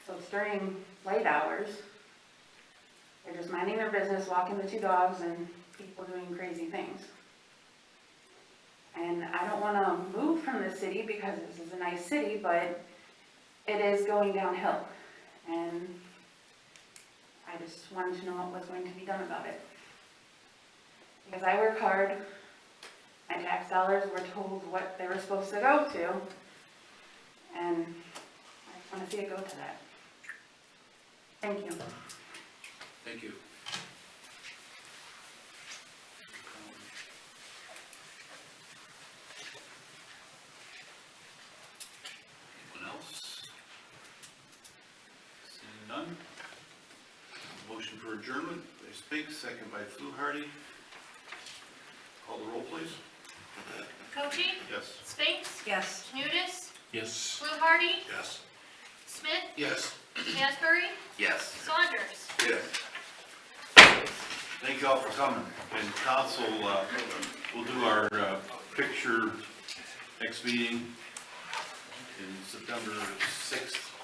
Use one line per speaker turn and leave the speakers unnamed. during late hours. They're just minding their business, walking the two dogs and people doing crazy things. And I don't wanna move from the city because this is a nice city, but it is going downhill. And I just wanted to know what was going to be done about it. Because I work hard, my tax dollars were told what they were supposed to go to. And I just wanna see it go to that. Thank you.
Thank you. Anyone else? Seeing none? Motion for adjournment by Spink, second by Fluharty. Call the roll, please.
Cochee,
Yes.
Spinks,
Yes.
Nudis,
Yes.
Fluharty,
Yes.
Smith,
Yes.
Asbury,
Yes.
Saunders.
Yeah. Thank y'all for coming, and council, uh, we'll do our, uh, picture next meeting in September sixth.